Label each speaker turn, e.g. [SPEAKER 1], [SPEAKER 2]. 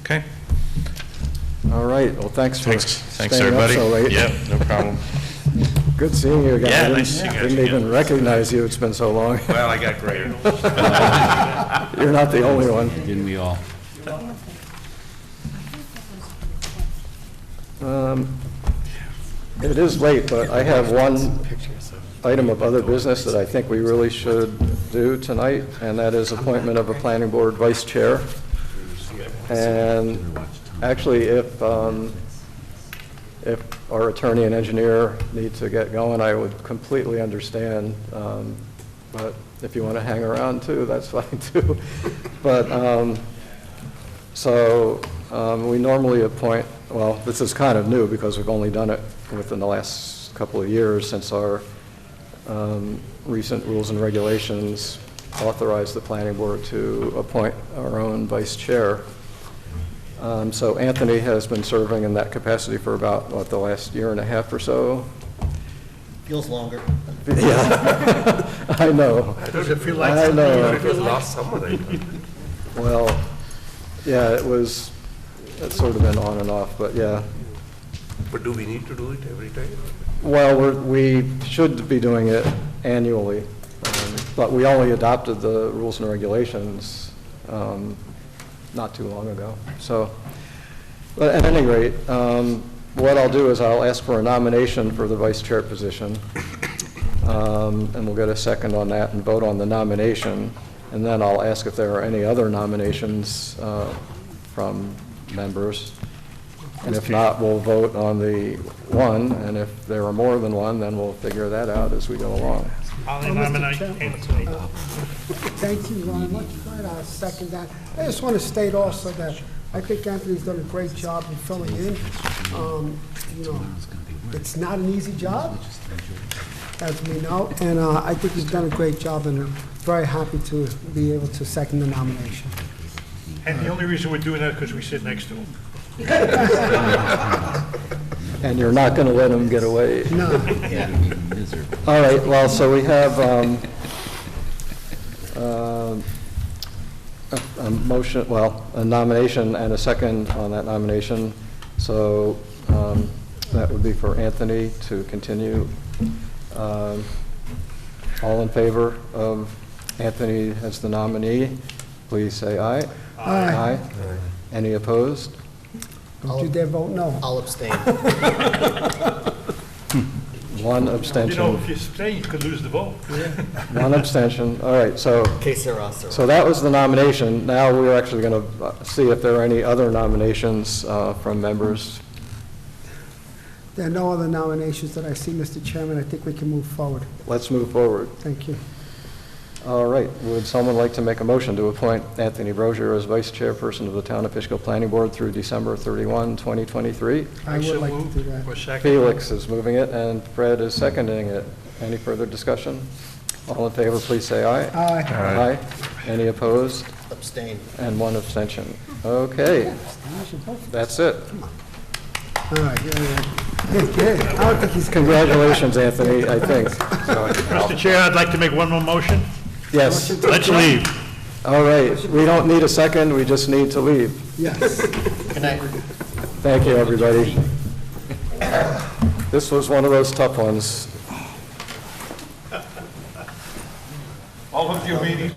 [SPEAKER 1] Okay,
[SPEAKER 2] All right, well, thanks for
[SPEAKER 1] thanks, thanks,
[SPEAKER 2] staying up
[SPEAKER 1] everybody.
[SPEAKER 2] so late.
[SPEAKER 1] Yeah, no problem.
[SPEAKER 2] Good seeing you again.
[SPEAKER 1] Yeah,
[SPEAKER 2] I didn't-
[SPEAKER 1] nice seeing you
[SPEAKER 2] Didn't
[SPEAKER 1] guys
[SPEAKER 2] even
[SPEAKER 1] again.
[SPEAKER 2] recognize you, it's been so long.
[SPEAKER 1] Well, I got greater.
[SPEAKER 2] You're not the only one.
[SPEAKER 3] Didn't we all?
[SPEAKER 2] Um, It is late, but I have one item of other business that I think we really should do tonight, and that is appointment of a planning board vice chair. And actually, if, um, if our attorney and engineer need to get going, I would completely understand. um, But if you want to hang around too, that's fine too. But, um, so um, we normally appoint, well, this is kind of new because we've only done it within the last couple of years since our um, recent rules and regulations authorized the planning board to appoint our own vice chair. Um, So Anthony has been serving in that capacity for about, what, the last year and a half or so?
[SPEAKER 4] Feels longer.
[SPEAKER 2] Yeah, I know.
[SPEAKER 5] Does it feel
[SPEAKER 2] I know.
[SPEAKER 5] last summer
[SPEAKER 2] Well, yeah, it was, it's sort of been on and off, but yeah.
[SPEAKER 5] But do we need to do it every time?
[SPEAKER 2] Well, we're- we should be doing it annually, um, but we only adopted the rules and regulations um, not too long ago. So, but at any rate, um, what I'll do is I'll ask for a nomination for the vice chair position, um, and we'll get a second on that and vote on the nomination, and then I'll ask if there are any other nominations uh, from members. And if not, we'll vote on the one, and if there are more than one, then we'll figure that out as we go along.
[SPEAKER 6] Oh,
[SPEAKER 7] I'll nominate Anthony.
[SPEAKER 6] Thank you, Ron. Much good. I'll second that. I just want to state also that I think Anthony's done a great job in filling in. Um, You know, it's not an easy job, as we know, and uh, I think he's done a great job, and I'm very happy to be able to second the nomination.
[SPEAKER 7] And the only reason we're doing that is because we sit next to him.
[SPEAKER 2] And you're not going to let them get away.
[SPEAKER 6] No,
[SPEAKER 2] All right, well, so we have um, um, a a motion, well, a nomination and a second on that nomination. So um, that would be for Anthony to continue. Um, All in favor of Anthony as the nominee, please say aye.
[SPEAKER 6] Aye.
[SPEAKER 2] Any opposed?
[SPEAKER 6] don't you dare vote no.
[SPEAKER 4] I'll abstain.
[SPEAKER 2] One
[SPEAKER 7] You know,
[SPEAKER 2] abstention.
[SPEAKER 7] if you stay, you could lose the vote.
[SPEAKER 2] One abstention. All right, so
[SPEAKER 4] Que sera, sera.
[SPEAKER 2] So that was the nomination. Now we're actually going to see if there are any other nominations uh, from members.
[SPEAKER 6] There are no other nominations that I see, Mr. Chairman. I think we can move forward.
[SPEAKER 2] Let's move forward.
[SPEAKER 6] Thank you.
[SPEAKER 2] All right, would someone like to make a motion to appoint Anthony Brozier as vice chairperson of the Town of Fishkill Planning Board through December 31, 2023?
[SPEAKER 6] I
[SPEAKER 7] so
[SPEAKER 6] would like to
[SPEAKER 7] moved.
[SPEAKER 6] do that.
[SPEAKER 7] Or second.
[SPEAKER 2] Felix is moving it, and Fred is seconding it. Any further discussion? All in favor, please say aye.
[SPEAKER 6] Aye.
[SPEAKER 2] Aye. Any opposed?
[SPEAKER 4] Abstain.
[SPEAKER 2] And one abstention. Okay, that's it.
[SPEAKER 6] All right, yeah, yeah. Yeah, I don't think he's coming.
[SPEAKER 2] Congratulations, Anthony, I think.
[SPEAKER 7] Mr. Chair, I'd like to make one more motion.
[SPEAKER 2] Yes.
[SPEAKER 7] Let's leave.
[SPEAKER 2] All right, we don't need a second, we just need to leave.
[SPEAKER 6] Yes.
[SPEAKER 4] Good night.
[SPEAKER 2] Thank you, everybody. This was one of those tough ones.
[SPEAKER 7] All of you meetings.